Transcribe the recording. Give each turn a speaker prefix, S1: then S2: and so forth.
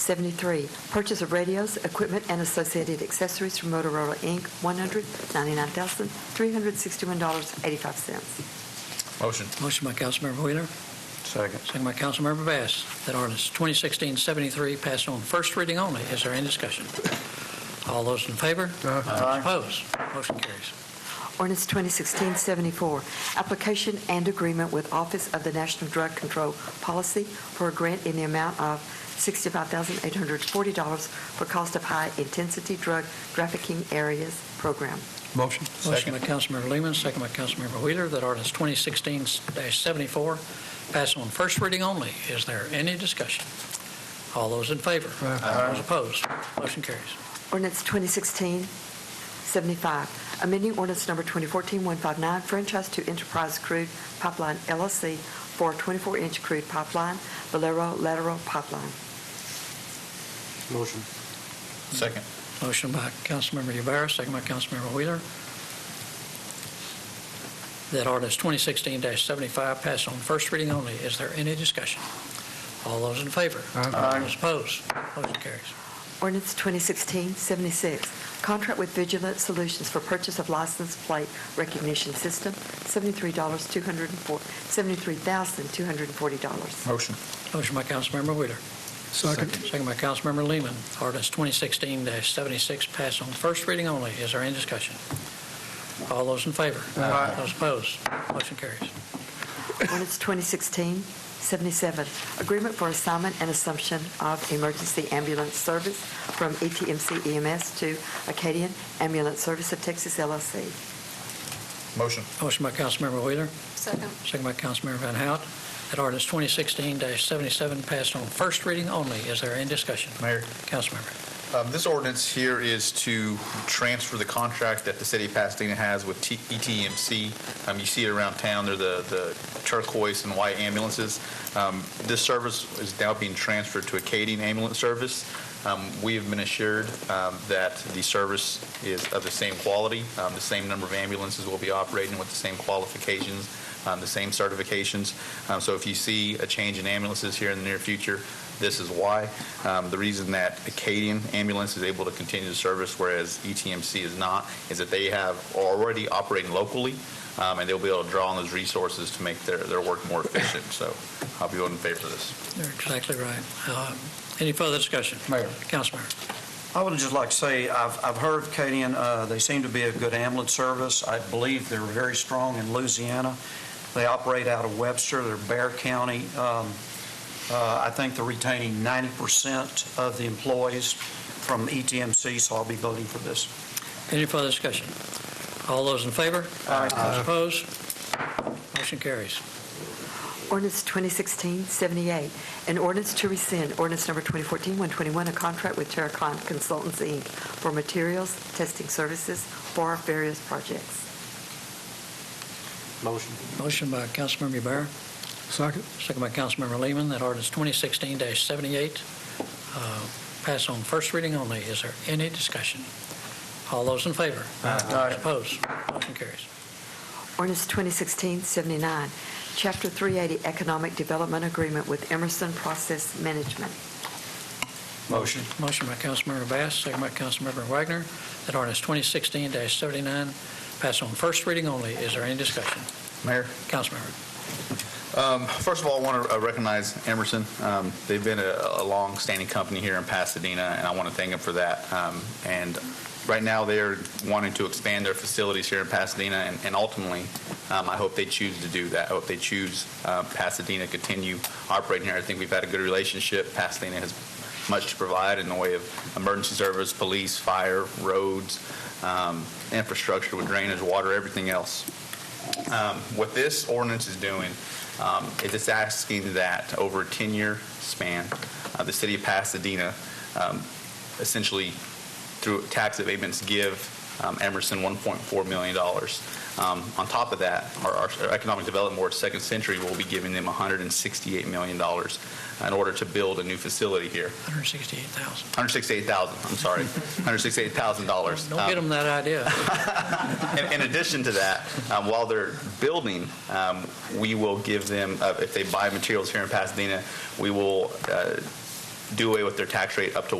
S1: 73, purchase of radios, equipment, and associated accessories from Motorola, Inc., $199,361.85.
S2: Motion.
S3: Motion by Councilmember Wheeler,
S2: Second.
S3: second by Councilmember Bass, that ordinance 2016-73 pass on first reading only. Is there any discussion? All those in favor?
S2: Aye.
S3: Opposed? Motion carries.
S1: Ordinance 2016-74, application and agreement with Office of the National Drug Control Policy for a grant in the amount of $65,840 for cost of high-intensity drug trafficking areas program.
S2: Motion.
S3: Motion
S2: Second.
S3: by Councilmember Lehman, second by Councilmember Wheeler, that ordinance 2016-74 pass on first reading only. Is there any discussion? All those in favor?
S2: Aye.
S3: Those opposed? Motion carries.
S1: Ordinance 2016-75, amending ordinance number 2014-159, franchise to Enterprise Crude Pipeline LLC for 24-inch crude pipeline, Valero lateral pipeline.
S2: Motion. Second.
S3: Motion by Councilmember Yubara, second by Councilmember Wheeler, that ordinance 2016-75 pass on first reading only. Is there any discussion? All those in favor?
S2: Aye.
S3: Those opposed? Motion carries.
S1: Ordinance 2016-76, contract with Vigilant Solutions for purchase of license plate recognition system, $73,240.
S2: Motion.
S3: Motion by Councilmember Wheeler. Second. Second by Councilmember Lehman. Ordinance 2016-76 pass on first reading only. Is there any discussion? All those in favor?
S2: Aye.
S3: Those opposed? Motion carries.
S1: Ordinance 2016-77, agreement for assignment and assumption of emergency ambulance service from E ETMC EMS to Acadian Ambulance Service of Texas LLC.
S2: Motion.
S3: Motion by Councilmember Wheeler,
S1: Second.
S3: Second by Councilmember Van Hout, that ordinance 2016-77 passed on first reading only. Is there any discussion?
S2: Mayor.
S3: Councilmember.
S4: Um, This ordinance here is to transfer the contract that the city of Pasadena has with T- ETMC. Um, You see it around town, they're the the turquoise and white ambulances. Um, This service is now being transferred to Acadian Ambulance Service. Um, We have been assured um, that the service is of the same quality, um, the same number of ambulances will be operating with the same qualifications, um, the same certifications. Um, So if you see a change in ambulances here in the near future, this is why. Um, The reason that Acadian Ambulance is able to continue the service, whereas E ETMC is not, is that they have already operating locally, um, and they'll be able to draw on those resources to make their, their work more efficient. So I'll be voting in favor of this.
S3: You're exactly right. Uh, Any further discussion?
S5: Mayor.
S3: Councilmember.
S5: I would just like to say, I've, I've heard of Acadian, uh, they seem to be a good ambulance service. I believe they're very strong in Louisiana. They operate out of Webster, they're Bear County. Um, uh, I think they're retaining 90% of the employees from E ETMC, so I'll be voting for this.
S3: Any further discussion? All those in favor?
S5: Aye.
S3: Those opposed? Motion carries.
S1: Ordinance 2016-78, an ordinance to rescind ordinance number 2014-121, a contract with Terracon Consultants, Inc. for materials testing services for various projects.
S5: Motion.
S3: Motion by Councilmember Yubara,
S6: Second.
S3: second by Councilmember Lehman, that ordinance 2016-78 uh, pass on first reading only. Is there any discussion? All those in favor? Those opposed? Motion carries.
S1: Ordinance 2016-79, Chapter 380 Economic Development Agreement with Emerson Process Management.
S5: Motion.
S3: Motion by Councilmember Bass, second by Councilmember Wagner, that ordinance 2016-79 pass on first reading only. Is there any discussion?
S4: Mayor?
S3: Councilmember.
S4: Um, First of all, I want to recognize Emerson. Um, They've been a a long-standing company here in Pasadena, and I want to thank them for that. Um, And right now, they're wanting to expand their facilities here in Pasadena, and- and ultimately, um, I hope they choose to do that. I hope they choose uh, Pasadena, to continue operating here. I think we've had a good relationship. Pasadena has much to provide in the way of emergency service, police, fire, roads, um, infrastructure with drainage, water, everything else. Um, What this ordinance is doing um, It's just asking that over a 10-year span, uh, the city of Pasadena um, essentially, through tax abatements, give um, Emerson $1.4 million. Um, On top of that, our- our Economic Development Board, Second Century, will be giving them $168 million in order to build a new facility here.
S3: 168,000.
S4: 168,000, I'm sorry, $168,000.
S3: Don't
S4: Um,
S3: get them that idea.
S4: in, in addition to that, um, while they're building, um, we will give them, uh, if they buy materials here in Pasadena, we will uh, do away with their tax rate up to